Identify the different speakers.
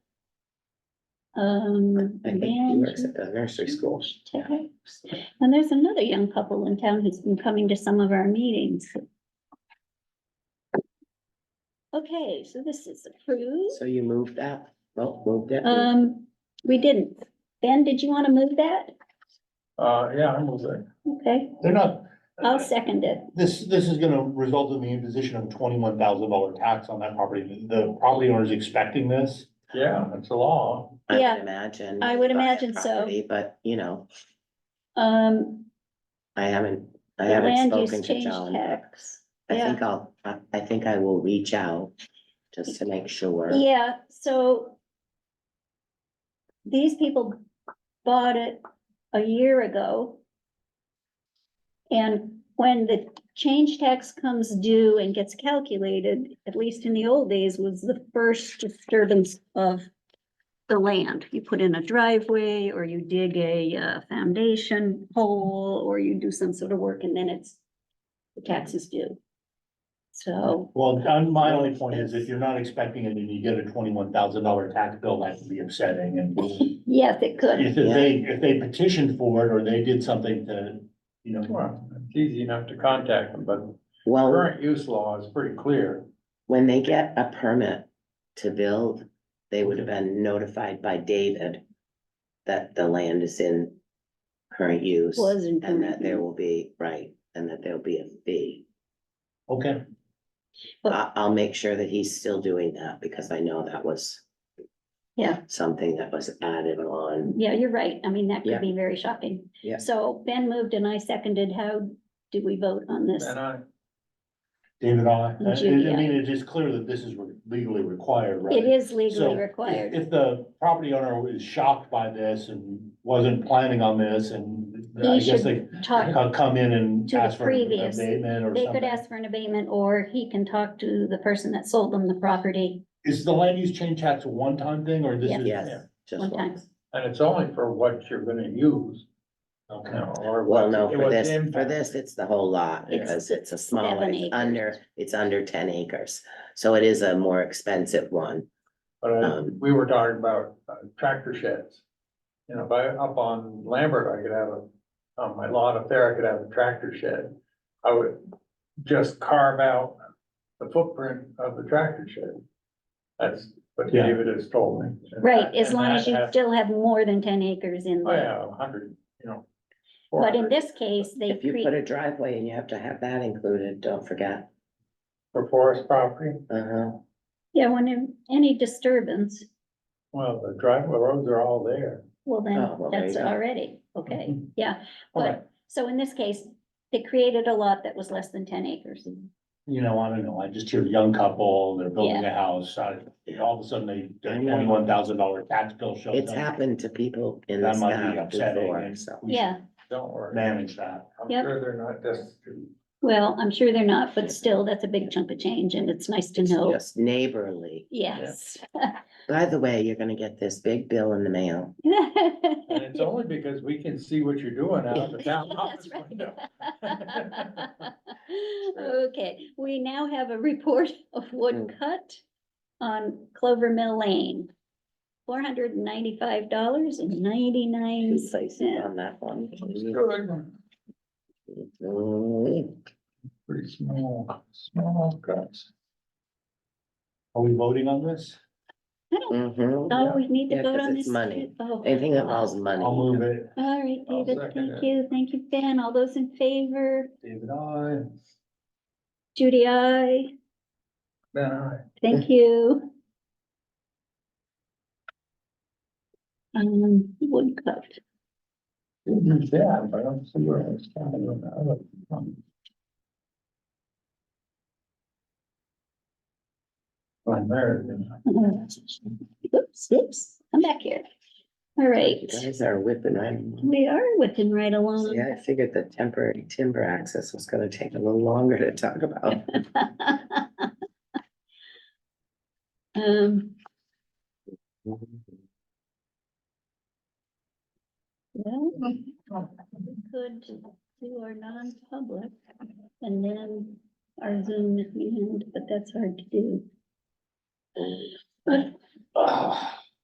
Speaker 1: Um,
Speaker 2: I think he
Speaker 1: Van-
Speaker 2: works at the nursery
Speaker 1: Mm-hmm.
Speaker 2: school.
Speaker 1: Okay. And there's another young couple in town who's been coming to some of our meetings. Okay, so this is approved.
Speaker 2: So you moved that, well, moved it.
Speaker 1: Um, we didn't. Ben, did you want to move that?
Speaker 3: Uh, yeah, I'm with it.
Speaker 1: Okay,
Speaker 4: They're not,
Speaker 2: Uh,
Speaker 1: I'll second it.
Speaker 4: this, this is gonna result in the imposition of twenty-one thousand dollar tax on that property. The property owner is expecting this.
Speaker 3: Yeah, it's a law.
Speaker 2: I would
Speaker 1: yeah,
Speaker 2: Imagine.
Speaker 1: I would
Speaker 2: if had
Speaker 1: imagine so.
Speaker 2: property, But, you know,
Speaker 1: Um,
Speaker 2: I haven't, I
Speaker 1: the
Speaker 2: haven't
Speaker 1: land use
Speaker 2: spoken to
Speaker 1: change
Speaker 2: John. but
Speaker 1: tax.
Speaker 2: I
Speaker 1: Yeah.
Speaker 2: think I'll, I, I think I will reach out just to make sure.
Speaker 1: Yeah, so these people bought it a year ago. And when the change tax comes due and gets calculated, at least in the old days, was the first disturbance of the land. You put in a driveway or you dig a uh, foundation hole or you do some sort of work and then it's the tax is due. So,
Speaker 4: Well, and my only point is if you're not expecting it and you get a twenty-one thousand dollar tax bill, that would be upsetting and
Speaker 1: yes, it could.
Speaker 4: if they, if they petitioned for it or they did something to, you know,
Speaker 3: Well, it's easy enough to contact them, but
Speaker 2: Well,
Speaker 3: current use law is pretty clear.
Speaker 2: when they get a permit to build, they would have been notified by David that the land is in current use
Speaker 1: Was Mm-hmm. in
Speaker 2: and that
Speaker 1: current
Speaker 2: there
Speaker 1: use.
Speaker 2: will be, right, and that there'll be a fee.
Speaker 4: okay,
Speaker 1: But-
Speaker 2: I, I'll make sure that he's still doing that because I know that was.
Speaker 1: Yeah.
Speaker 2: Something that was added on.
Speaker 1: Yeah, you're right. I mean, that
Speaker 2: Yeah.
Speaker 1: could be very shocking.
Speaker 2: Yeah.
Speaker 1: So Ben moved and I seconded. How do we vote on this?
Speaker 3: And I,
Speaker 4: David, I, I
Speaker 1: Judy, I-
Speaker 4: mean, it is clear that this is legally required, right?
Speaker 1: It is legally
Speaker 4: So,
Speaker 1: required.
Speaker 4: If the property owner is shocked by this and wasn't planning on this and
Speaker 1: He
Speaker 4: I
Speaker 1: should
Speaker 4: guess they
Speaker 1: Talk,
Speaker 4: co- come in and
Speaker 1: to the
Speaker 4: ask for an
Speaker 1: previous.
Speaker 4: abatement or
Speaker 1: they could
Speaker 4: something.
Speaker 1: ask for an abatement or he can talk to the person that sold them the property.
Speaker 4: Is the land use change tax a one-time thing or this
Speaker 1: Yeah.
Speaker 4: is?
Speaker 2: Yes, just
Speaker 1: One time.
Speaker 2: once.
Speaker 3: and it's only for what you're gonna use, you
Speaker 4: Okay.
Speaker 3: know, or.
Speaker 2: Well,
Speaker 3: what's-
Speaker 2: no,
Speaker 3: it
Speaker 2: for
Speaker 3: was
Speaker 2: this, for
Speaker 3: impact.
Speaker 2: this, it's the whole lot
Speaker 1: It's
Speaker 2: because it's a smaller,
Speaker 1: seven
Speaker 2: it's
Speaker 1: acres.
Speaker 2: under, it's under ten acres. So it is a more expensive one.
Speaker 3: But uh,
Speaker 2: Um,
Speaker 3: we were talking about uh, tractor sheds. You know, by, up on Lambert, I could have a, on my lot up there, I could have a tractor shed. I would just carve out the footprint of the tractor shed. That's what
Speaker 4: Yeah.
Speaker 3: David has told me. And
Speaker 1: Right,
Speaker 3: that-
Speaker 1: as
Speaker 3: and
Speaker 1: long as
Speaker 3: that
Speaker 1: you
Speaker 3: has-
Speaker 1: still have more than ten acres in
Speaker 3: Oh,
Speaker 1: there.
Speaker 3: yeah, a hundred, you know.
Speaker 1: But in
Speaker 3: 400
Speaker 1: this case, they
Speaker 2: If you put
Speaker 1: create,
Speaker 2: a driveway and you have to have that included, don't forget.
Speaker 3: For forest property,
Speaker 2: Uh-huh.
Speaker 1: yeah, when in- any disturbance,
Speaker 3: well, the driveway roads are all there.
Speaker 1: well
Speaker 2: Oh, well,
Speaker 1: then,
Speaker 2: there
Speaker 1: that's
Speaker 2: you go. Mm-hmm.
Speaker 1: already, okay, yeah.
Speaker 4: Okay,
Speaker 1: But, so in this case, they created a lot that was less than ten acres.
Speaker 4: you know, I don't know, I just hear a young couple, they're building a house, I, all of a sudden they,
Speaker 2: I
Speaker 4: get
Speaker 2: know.
Speaker 4: twenty-one thousand dollar tax bill shows up.
Speaker 2: It's happened to people in
Speaker 4: That
Speaker 2: this
Speaker 4: might be
Speaker 2: town
Speaker 4: upsetting
Speaker 2: before,
Speaker 4: and-
Speaker 2: so.
Speaker 4: We should
Speaker 1: Yeah,
Speaker 3: Don't worry,
Speaker 4: Manage that.
Speaker 3: I'm
Speaker 1: Yep.
Speaker 3: sure they're not just.
Speaker 1: well, I'm sure they're not, but still, that's a big chunk of change and it's nice to
Speaker 2: It's
Speaker 1: know.
Speaker 2: Just neighborly.
Speaker 1: Yes.
Speaker 2: By the way, you're gonna get this big bill in the mail.
Speaker 3: And it's only because we can see what you're doing out of the town
Speaker 1: That's
Speaker 3: office
Speaker 1: right.
Speaker 3: window.
Speaker 1: Okay, we now have a report of wood
Speaker 2: Mm.
Speaker 1: cut on Clover Mill Lane. Four hundred and ninety-five dollars and ninety-nine
Speaker 2: Two places
Speaker 1: cents.
Speaker 2: on that one.
Speaker 3: Good.
Speaker 2: Mm,
Speaker 3: Pretty small, small cuts.
Speaker 4: Are we voting on this?
Speaker 2: mhm.
Speaker 1: Oh, we need to
Speaker 2: Yeah,
Speaker 1: vote
Speaker 2: 'cause
Speaker 1: on
Speaker 2: it's
Speaker 1: this.
Speaker 2: money.
Speaker 1: too? Oh.
Speaker 2: Anything that involves money.
Speaker 4: I'll move it.
Speaker 1: All right,
Speaker 3: I'll
Speaker 1: David,
Speaker 3: second
Speaker 1: thank
Speaker 3: it.
Speaker 1: you, thank you, Ben. All those in favor?
Speaker 3: David, I,
Speaker 1: Judy, I,
Speaker 3: Ben, I.
Speaker 1: thank you. Um, wood cut.
Speaker 3: Didn't that, but I don't see where it's coming from. Well, there, you know.
Speaker 1: Oops, oops, I'm back here. All
Speaker 2: You
Speaker 1: right,
Speaker 2: guys are whipping, I,
Speaker 1: we are whipping right along.
Speaker 2: yeah, I figured the temporary timber access was gonna take a little longer to talk about.
Speaker 1: Um, well, we could do our non-public and then our Zoom at the end, but that's hard to do.
Speaker 4: Ah,